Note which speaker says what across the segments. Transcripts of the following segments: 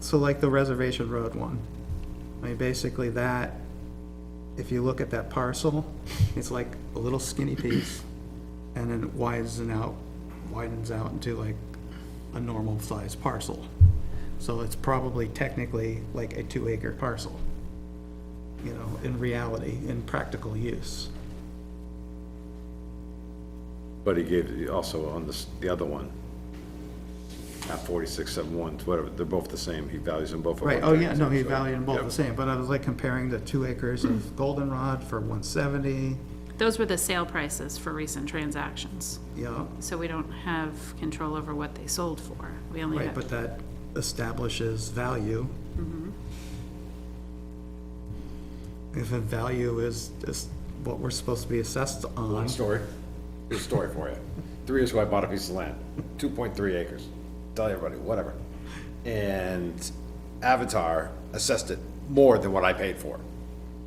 Speaker 1: so like the Reservation Road one, I mean, basically that, if you look at that parcel, it's like a little skinny piece, and then it widens and out, widens out into like a normal sized parcel. So it's probably technically like a two acre parcel, you know, in reality, in practical use.
Speaker 2: But he gave the- also on this, the other one, at forty-six, seven, one, whatever, they're both the same, he values them both. at
Speaker 1: Right, oh yeah, no, he
Speaker 2: 137, so-
Speaker 1: valued them both the
Speaker 2: Yep.
Speaker 1: same, but I was like comparing the two acres of goldenrod for one seventy,
Speaker 3: Those were the sale prices for recent transactions,
Speaker 1: you know,
Speaker 3: so we don't have control over what they sold for. We only
Speaker 1: right,
Speaker 3: have,
Speaker 1: but that establishes value.
Speaker 2: Mm-hmm.
Speaker 1: If a value is, is what we're supposed to be assessed on,
Speaker 2: Long story, here's a story for you. Three years ago, I bought a piece of land, two point three acres, tell everybody, whatever. And Avatar assessed it more than what I paid for. it.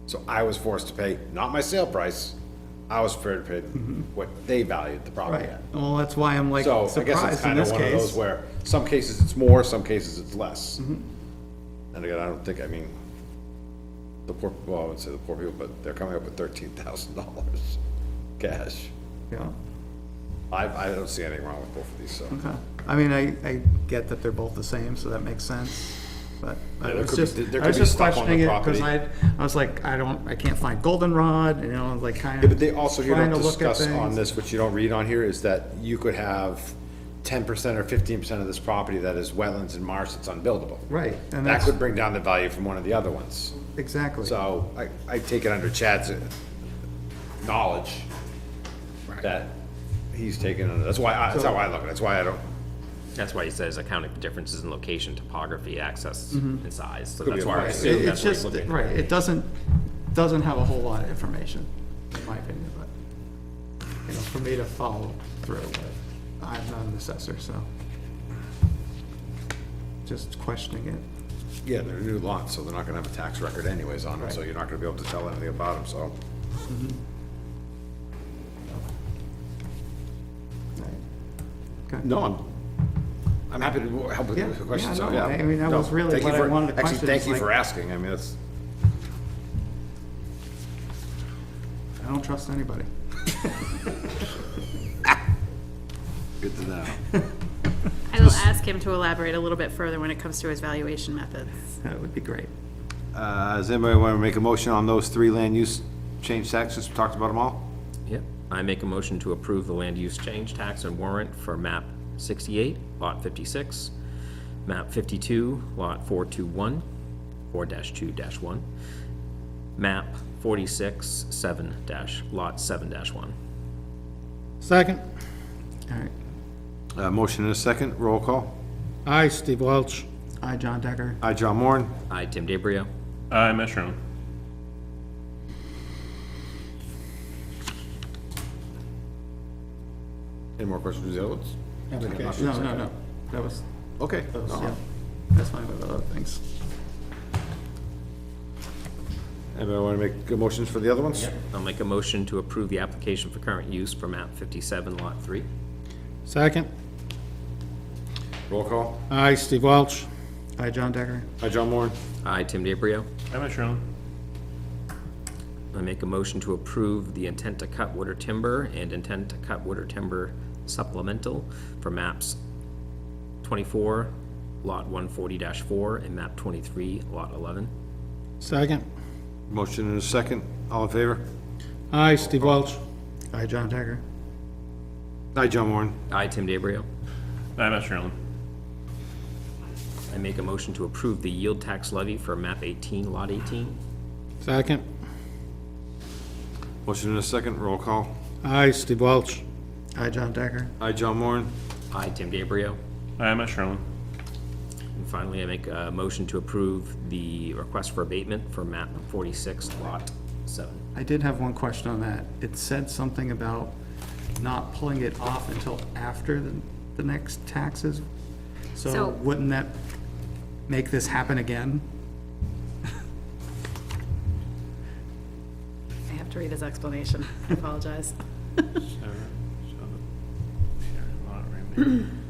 Speaker 2: So I was forced to pay, not my sale price, I was prepared to pay what they valued the property
Speaker 1: Mm-hmm. right,
Speaker 2: at.
Speaker 1: well, that's why I'm like
Speaker 2: So I guess it's
Speaker 1: surprised in
Speaker 2: kind of
Speaker 1: this
Speaker 2: one of those
Speaker 1: case. Mm-hmm.
Speaker 2: where some cases it's more, some cases it's less. And again, I don't think, I mean, the poor, well, I wouldn't say the poor people, but they're coming up with thirteen thousand dollars cash.
Speaker 1: Yeah,
Speaker 2: I, I don't see anything wrong with both of these, so.
Speaker 1: okay, I mean, I, I get that they're both the same, so that makes sense, but I
Speaker 2: Yeah, there
Speaker 1: was
Speaker 2: could be-
Speaker 1: just,
Speaker 2: there could
Speaker 1: I was
Speaker 2: be
Speaker 1: just
Speaker 2: stuff on
Speaker 1: questioning
Speaker 2: the
Speaker 1: it, cause
Speaker 2: property.
Speaker 1: I, I was like, I don't, I can't find goldenrod, you know, like kinda.
Speaker 2: Yeah, but they also, you
Speaker 1: trying
Speaker 2: don't
Speaker 1: to look at
Speaker 2: discuss on
Speaker 1: things.
Speaker 2: this, which you don't read on here, is that you could have ten percent or fifteen percent of this property that is wetlands and marsh that's unbuildable.
Speaker 1: Right, and
Speaker 2: That
Speaker 1: that's,
Speaker 2: could bring down the value from one of the other ones.
Speaker 1: exactly.
Speaker 2: So I, I take it under Chad's uh, knowledge that he's taken, under- that's why, I- that's how I look at it, that's why I don't,
Speaker 4: That's why he says accounting for differences in location, topography, access, and size, so
Speaker 2: Mm-hmm. Could be
Speaker 4: that's
Speaker 2: a
Speaker 4: why I
Speaker 2: price.
Speaker 4: assume
Speaker 1: It-
Speaker 4: that's
Speaker 1: It's
Speaker 4: what he's
Speaker 1: just,
Speaker 4: looking
Speaker 1: right, it doesn't, doesn't have a whole lot of information, in my opinion, but, you know, for me to follow through, but I'm not an assessor, so. Just questioning it.
Speaker 2: yeah, they're new lots, so they're not gonna have a tax record anyways on them, so you're not gonna be able to tell anything about them, so.
Speaker 1: Right. Okay.
Speaker 2: No, I'm, I'm happy to help with
Speaker 1: Yeah,
Speaker 2: the questions,
Speaker 1: yeah,
Speaker 2: so,
Speaker 1: no,
Speaker 2: yeah.
Speaker 1: I mean, that
Speaker 2: No,
Speaker 1: was really
Speaker 2: thank you
Speaker 1: what I
Speaker 2: for-
Speaker 1: wanted to question,
Speaker 2: Actually, thank
Speaker 1: it's
Speaker 2: you
Speaker 1: like-
Speaker 2: for asking, I mean, it's,
Speaker 1: I don't trust anybody.
Speaker 2: good to know.
Speaker 3: I will ask him to elaborate a little bit further when it comes to his valuation methods.
Speaker 1: That would be great.
Speaker 2: Uh, does anybody wanna make a motion on those three land use change taxes, we talked about them all?
Speaker 4: at. Yep. I make a motion to approve the land use change tax and warrant for map sixty-eight, lot fifty-six, map fifty-two, lot four-two-one, four dash two dash one, map forty-six, seven dash, lot seven dash one.
Speaker 5: Second.
Speaker 1: All right.
Speaker 2: Uh, motion and a second, roll call.
Speaker 5: Aye, Steve Welch.
Speaker 1: I, John Decker,
Speaker 2: Aye, John Moore.
Speaker 4: I, Tim DeBrio.
Speaker 6: Aye, Mashroom.
Speaker 2: Any more questions, the other ones?
Speaker 1: no, no, no, that was,
Speaker 2: Okay.
Speaker 1: that was,
Speaker 2: no.
Speaker 1: yeah, that's fine with other things.
Speaker 2: Anybody want to make motions for the other ones?
Speaker 4: I'll make a motion to approve the application for current use for map fifty-seven, lot three.
Speaker 5: Second.
Speaker 2: Roll call.
Speaker 5: Aye, Steve Welch.
Speaker 1: I, John Decker,
Speaker 2: Hi, John Moore.
Speaker 4: I, Tim DeBrio.
Speaker 6: Aye, Mashroom.
Speaker 4: I make a motion to approve the intent to cut wood or timber and intent to cut wood or timber supplemental for maps twenty-four, lot one forty four, and map twenty-three, lot eleven.
Speaker 5: Second.
Speaker 2: Motion and a second. All in favor?
Speaker 5: Aye, Steve Welch.
Speaker 1: I, John Decker,
Speaker 2: Hi, John Moore.
Speaker 4: I, Tim DeBrio.
Speaker 6: Aye, Mashroom.
Speaker 4: I make a motion to approve the yield tax levy for map eighteen, lot eighteen.
Speaker 5: Second.
Speaker 2: Motion and a second. Roll call.
Speaker 5: Aye, Steve Welch.
Speaker 1: I, John Decker,
Speaker 2: Hi, John Moore.
Speaker 4: I, Tim DeBrio.
Speaker 6: Aye, Mashroom.
Speaker 4: And finally, I make a motion to approve the request for abatement for map forty-six, lot seven.
Speaker 1: I did have one question on that. It said something about not pulling it off until after the, the next taxes. So
Speaker 3: So-
Speaker 1: wouldn't that make this happen again?
Speaker 3: I have to read his explanation. I apologize.
Speaker 6: Sarah, so, Sharon, lot remaining.